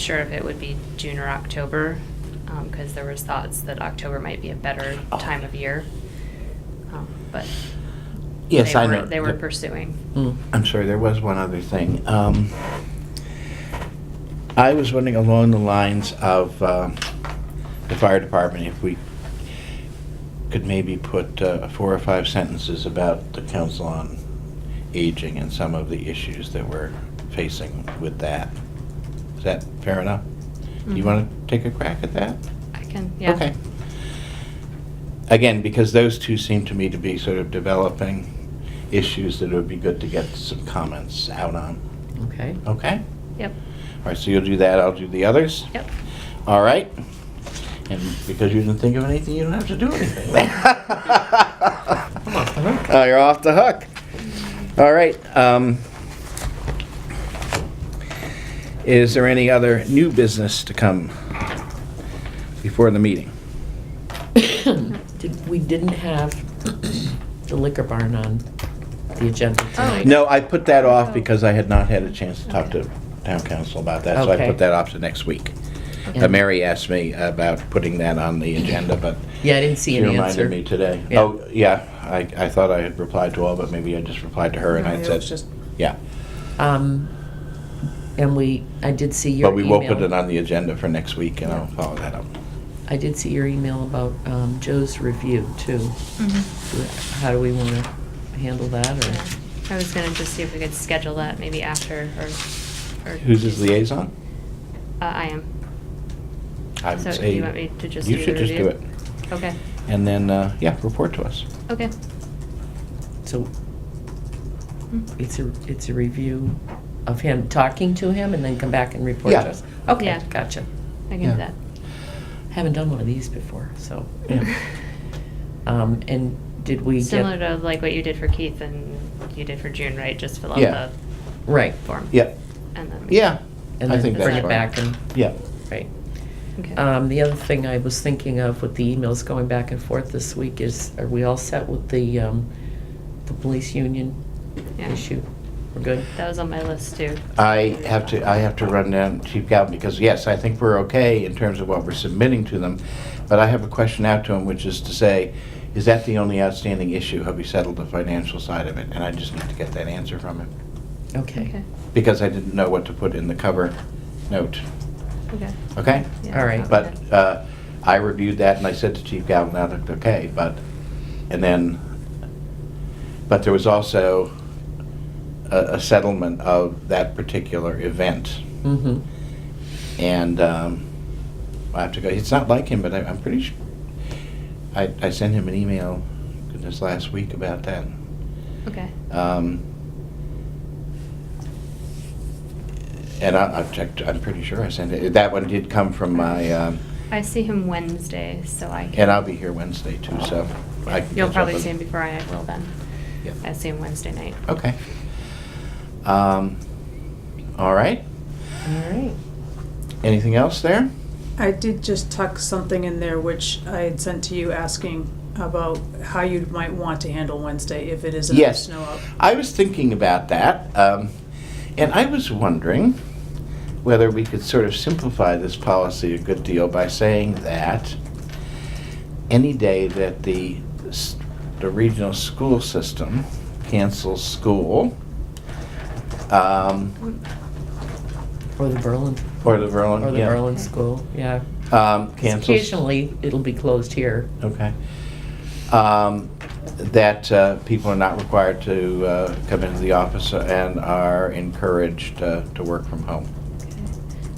sure if it would be June or October, because there was thoughts that October might be a better Oh. time of year. Um, But. Yes, they I were- know. They were The- pursuing. Hmm, Mm, I'm sorry, there was one other thing. Um, I was wondering along the lines of um, the fire department, if we could maybe put uh, four or five sentences about the council on aging and some of the issues that we're facing with that. Is that fair enough? Do you Mhm. want to take a crack at that? I can, yeah. Okay. Again, because those two seem to me to be sort of developing issues that it would be good to get some comments out on. Okay. Okay? Yep, All right, so you'll do that, I'll do the others? yep. All right? And because you didn't think of anything, you don't have to do anything. Oh, you're off the hook. All right. um, Is there any other new business to come before the meeting? Did, we didn't have the liquor barn on the agenda Oh, tonight. No, I put that off because I had not had a chance to talk to town council about that, so I Okay. put that off to next week. Uh, And- Mary asked me about putting that on the agenda, but Yeah, I didn't see she an reminded me answer. today. Yeah. Oh, yeah, I, I thought I had replied to all, but maybe I just replied to her and No, I it was said, just- yeah. Um, and we, I did see your But we email. will put it on the agenda for next week and I'll follow that up. I did see your email about, um, Joe's review too. How do we wanna handle that Mm-hmm. Yeah. or? I was gonna just see if we could schedule that maybe after or. or- Who's his liaison? Uh, I am. I would So say you want me to just You do should the just do it. review? Okay, And then, uh, yeah, report to us. okay. So it's a, it's a review of him talking to him and then come back and report Yeah. to us? Okay, Yeah. gotcha. I can Yeah. do that. Haven't done one of these before, so. Yeah. Um, and did we get? Mm-hmm. Similar to like what you did for Keith and you did for June, right? Just fill Yeah. out Right. the form. Yeah, And then. yeah. And I then think that's bring fine. it back and, Yeah. right. Okay. Um, the other thing I was thinking of with the emails going back and forth this week is, are we all set with the, um, the police union Yeah. issue? We're good? That was on my list too. I have to, I have to run down Chief Galvin, because yes, I think we're okay in terms of what we're submitting to them, but I have a question out to him, which is to say, is that the only outstanding issue? Have we settled the financial side of it? And I just need to get that answer from him, Okay. because I didn't know what to put in the cover note, Okay. okay? Yeah, All right. okay. But uh, I reviewed that, and I said to Chief Galvin, that looked okay, but, and then, but there was also a a settlement of that particular event. Mm-hmm. And um, I have to go. It's not like him, but I, I'm pretty sure. I, I sent him an email goodness last week about that. Okay. Um, and I, I've checked. I'm pretty sure I sent it. That one did come from my. Um, I see him Wednesday, so I can. and I'll be here Wednesday too, so I can. catch You'll up probably with- see him before I will then. Yeah. I see him Wednesday night. Okay. Um, all right. All right. Anything else there? I did just tuck something in there which I had sent to you asking about how you might want to handle Wednesday if it is enough Yes. snow out. I was thinking about that, um, and I was wondering whether we could sort of simplify this policy a good deal by saying that any day that the, s- the regional school system cancels school, um, Or the Berlin, or the Berlin, or the yeah, Berlin school, yeah. 'Cause Um, cancels Occasionally, it'll be closed here. Okay. Um, That uh, people are not required to uh, come into the office and are encouraged uh, to work from home.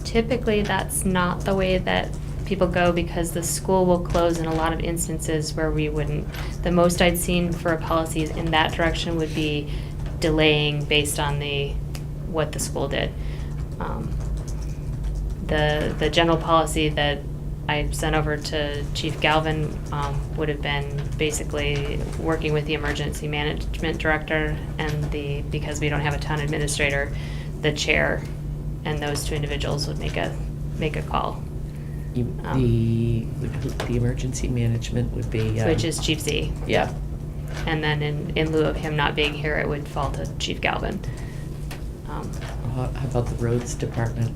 Typically, that's not the way that people go because the school will close in a lot of instances where we wouldn't. The most I'd seen for a policy in that direction would be delaying based on the, what the school did. Um, The, the general policy that I sent over to Chief Galvin um, would have been basically working with the emergency management director and the, because we don't have a town administrator, the chair and those two individuals would make a, make a call, You- Um. The, the emergency management would be. um, which is Chief Z. Yeah, And then in, in lieu of him not being here, it would fall to Chief Galvin. Um, how how about the roads department?